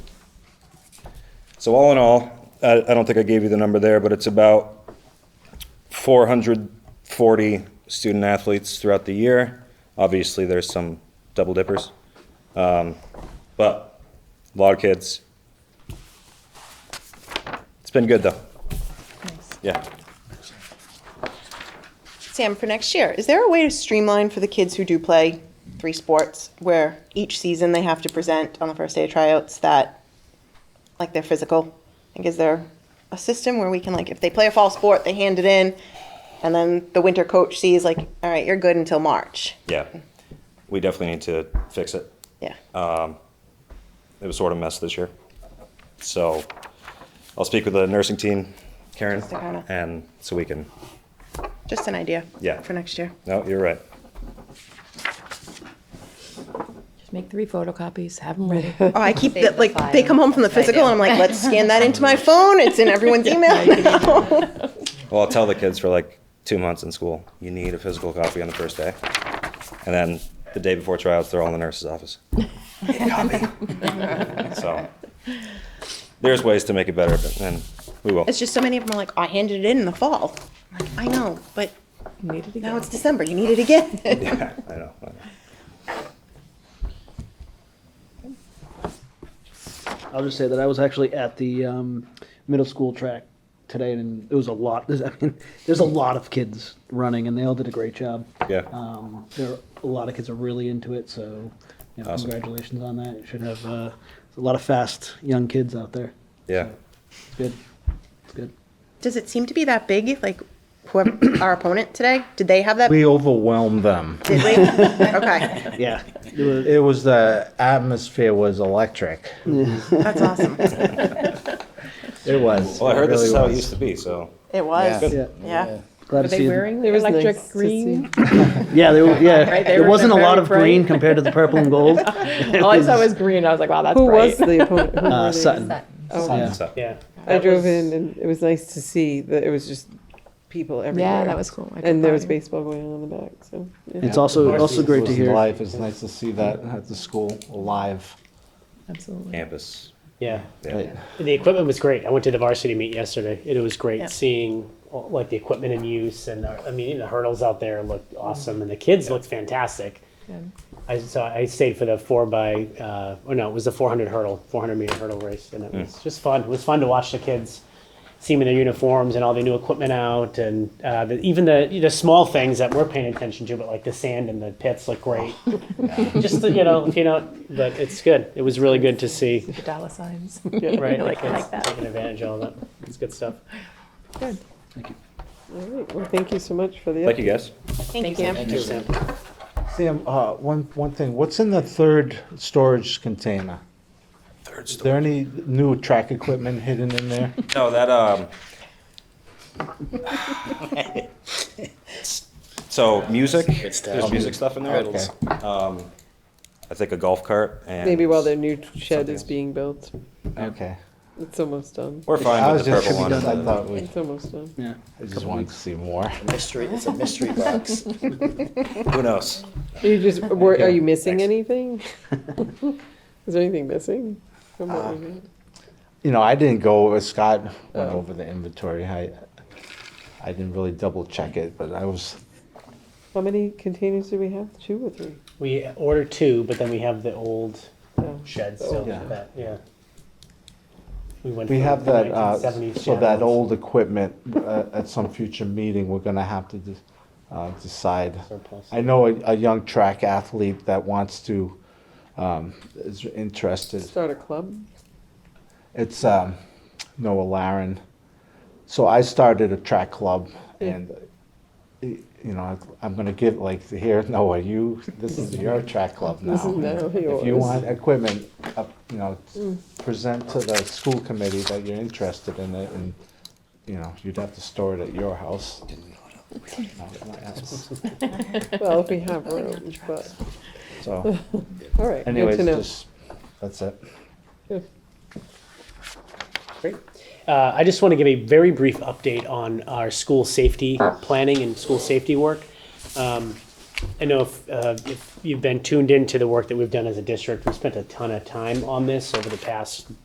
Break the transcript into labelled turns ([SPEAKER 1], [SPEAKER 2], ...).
[SPEAKER 1] So all in all, I, I don't think I gave you the number there, but it's about four hundred forty student athletes throughout the year. Obviously, there's some double dippers. Um, but a lot of kids. It's been good though. Yeah.
[SPEAKER 2] Sam, for next year, is there a way to streamline for the kids who do play three sports where each season they have to present on the first day of tryouts that, like, their physical? Like, is there a system where we can, like, if they play a fall sport, they hand it in, and then the winter coach sees, like, all right, you're good until March?
[SPEAKER 1] Yeah. We definitely need to fix it.
[SPEAKER 2] Yeah.
[SPEAKER 1] It was sort of a mess this year. So I'll speak with the nursing team, Karen,
[SPEAKER 2] Sakana.
[SPEAKER 1] and so we can,
[SPEAKER 2] Just an idea.
[SPEAKER 1] Yeah.
[SPEAKER 2] For next year.
[SPEAKER 1] no, you're right.
[SPEAKER 3] Just make three photocopies, have them ready.
[SPEAKER 2] Oh, I keep,
[SPEAKER 3] Save
[SPEAKER 2] the,
[SPEAKER 3] the
[SPEAKER 2] like, they
[SPEAKER 3] file.
[SPEAKER 2] come home from the
[SPEAKER 3] That's what I
[SPEAKER 2] physical,
[SPEAKER 3] do.
[SPEAKER 2] and I'm like, let's scan that into my phone. It's in everyone's email. now.
[SPEAKER 1] Well, I'll tell the kids for like two months in school, you need a physical copy on the first day. And then the day before tryouts, they're all in the nurse's office. Need a copy. So there's ways to make it better, but then we will.
[SPEAKER 2] It's just so many of them are like, I handed it in in the fall. I'm like, I know, but
[SPEAKER 3] Need it
[SPEAKER 2] now
[SPEAKER 3] again.
[SPEAKER 2] it's December. You need it again.
[SPEAKER 1] Yeah, I know. I know.
[SPEAKER 4] I'll just say that I was actually at the um, middle school track today, and it was a lot. There's, I mean, there's a lot of kids running, and they all did a great job.
[SPEAKER 1] Yeah.
[SPEAKER 4] Um, there are, a lot of kids are really into it, so you know,
[SPEAKER 1] Awesome.
[SPEAKER 4] congratulations on that. You should have uh, a lot of fast young kids out there.
[SPEAKER 1] Yeah.
[SPEAKER 4] It's good. It's good.
[SPEAKER 2] Does it seem to be that big? Like, whoever our opponent today, did they have that?
[SPEAKER 5] We overwhelmed them.
[SPEAKER 2] Did we? okay,
[SPEAKER 4] Yeah. It was-
[SPEAKER 5] It was the atmosphere was electric.
[SPEAKER 2] that's awesome.
[SPEAKER 5] It was.
[SPEAKER 1] Well, I heard this
[SPEAKER 5] really
[SPEAKER 1] is how it
[SPEAKER 5] was.
[SPEAKER 1] used to be, so
[SPEAKER 2] It was.
[SPEAKER 4] yeah.
[SPEAKER 2] Yeah.
[SPEAKER 4] Glad
[SPEAKER 3] Were
[SPEAKER 4] to
[SPEAKER 3] they
[SPEAKER 4] see them.
[SPEAKER 3] wearing the electric green?
[SPEAKER 4] Yeah, they were, yeah.
[SPEAKER 3] Right, they
[SPEAKER 4] there
[SPEAKER 3] were
[SPEAKER 4] wasn't a
[SPEAKER 3] very
[SPEAKER 4] lot of green
[SPEAKER 3] bright.
[SPEAKER 4] compared to the purple and gold.
[SPEAKER 3] All Oh, I saw was green, I was like, wow, that's
[SPEAKER 6] Who was
[SPEAKER 3] bright.
[SPEAKER 6] the opponent? Who
[SPEAKER 4] Uh,
[SPEAKER 6] were they?
[SPEAKER 4] Sutton.
[SPEAKER 6] Oh,
[SPEAKER 4] Yeah.
[SPEAKER 1] so,
[SPEAKER 4] Yeah.
[SPEAKER 6] I drove in and it was nice to see that it was just people everywhere.
[SPEAKER 3] Yeah, that was cool. I took
[SPEAKER 6] And there was
[SPEAKER 3] mine.
[SPEAKER 6] baseball going on in the back, so. yeah.
[SPEAKER 4] It's also also great to hear.
[SPEAKER 5] Life. It's nice to see that at the school alive.
[SPEAKER 3] Absolutely.
[SPEAKER 1] campus.
[SPEAKER 7] Yeah,
[SPEAKER 1] Yeah.
[SPEAKER 7] And the equipment was great. I went to the varsity meet yesterday, and it was great
[SPEAKER 2] Yeah.
[SPEAKER 7] seeing all- like the equipment in use, and uh, I mean the hurdles out there looked awesome, and the kids looked fantastic. I so I stayed for the four by, uh, oh no, it was the 400 hurdle, 400 meter hurdle race, and it was
[SPEAKER 3] Hmm.
[SPEAKER 7] just fun. It was fun to watch the kids. See them in their uniforms and all the new equipment out, and uh, the, even the the small things that we're paying attention to, but like the sand and the pits look great. Just you know, you know, but it's good. It was really good to see
[SPEAKER 3] The dollar signs.
[SPEAKER 7] right?
[SPEAKER 3] I like- I
[SPEAKER 7] It's
[SPEAKER 3] like that.
[SPEAKER 7] Taking advantage of all that. It's good stuff.
[SPEAKER 6] All right, well, thank you so much for the.
[SPEAKER 1] Thank you, guys.
[SPEAKER 2] Thank, you, Sam.
[SPEAKER 5] Sam, uh, one one thing. What's in the third storage container?
[SPEAKER 1] Third
[SPEAKER 5] Is there any new track equipment hidden in there?
[SPEAKER 1] No, that, um. So music, there's music stuff in there. Um,
[SPEAKER 5] Okay.
[SPEAKER 1] I think a golf cart and.
[SPEAKER 6] Maybe while their new shed is being built,
[SPEAKER 5] Okay.
[SPEAKER 6] it's almost done.
[SPEAKER 1] We're
[SPEAKER 5] I
[SPEAKER 1] fine
[SPEAKER 5] was
[SPEAKER 1] with the
[SPEAKER 5] just
[SPEAKER 1] purple one.
[SPEAKER 5] confused. I
[SPEAKER 1] and the-
[SPEAKER 5] thought we.
[SPEAKER 6] It's almost done.
[SPEAKER 4] Yeah.
[SPEAKER 5] I just wanted to see more.
[SPEAKER 8] Mystery, it's a mystery box.
[SPEAKER 1] Who knows?
[SPEAKER 6] Are you just, were, are you missing anything? Is there anything missing? from what we did?
[SPEAKER 5] You know, I didn't go over, Scott went over the inventory. I, I didn't really double check it, but I was,
[SPEAKER 6] How many containers do we have? Two or three?
[SPEAKER 7] We order two, but then we have the old
[SPEAKER 6] Yeah.
[SPEAKER 7] shed
[SPEAKER 3] Oh,
[SPEAKER 7] still.
[SPEAKER 5] Yeah.
[SPEAKER 7] That, yeah. We went.
[SPEAKER 5] we
[SPEAKER 7] from
[SPEAKER 5] have
[SPEAKER 7] the
[SPEAKER 5] that, uh,
[SPEAKER 7] 1970s
[SPEAKER 5] so that
[SPEAKER 7] channels.
[SPEAKER 5] old equipment, uh, at some future meeting, we're gonna have to de- uh, decide.
[SPEAKER 7] Surplus.
[SPEAKER 5] I know a, a young track athlete that wants to, um, is interested.
[SPEAKER 6] Start a club?
[SPEAKER 5] It's um, Noah Laren. So I started a track club,
[SPEAKER 6] Hmm.
[SPEAKER 5] and y- you know I- I'm going to give like here Noah, you this is your track club now.
[SPEAKER 6] This is now
[SPEAKER 5] if you
[SPEAKER 6] yours. Hmm.
[SPEAKER 5] want equipment, up, you know, present to the school committee that you're interested in it, and you know you'd have to store it at your house. not my house.
[SPEAKER 6] Well, if we have room, but,
[SPEAKER 5] So,
[SPEAKER 6] all right, good
[SPEAKER 5] anyways,
[SPEAKER 6] to know.
[SPEAKER 5] just that's it.
[SPEAKER 7] Great. Uh, I just want to give a very brief update on our school safety planning and school safety work. Um, I know if, uh, if you've been tuned into the work that we've done as a district, we spent a ton of time on this over the past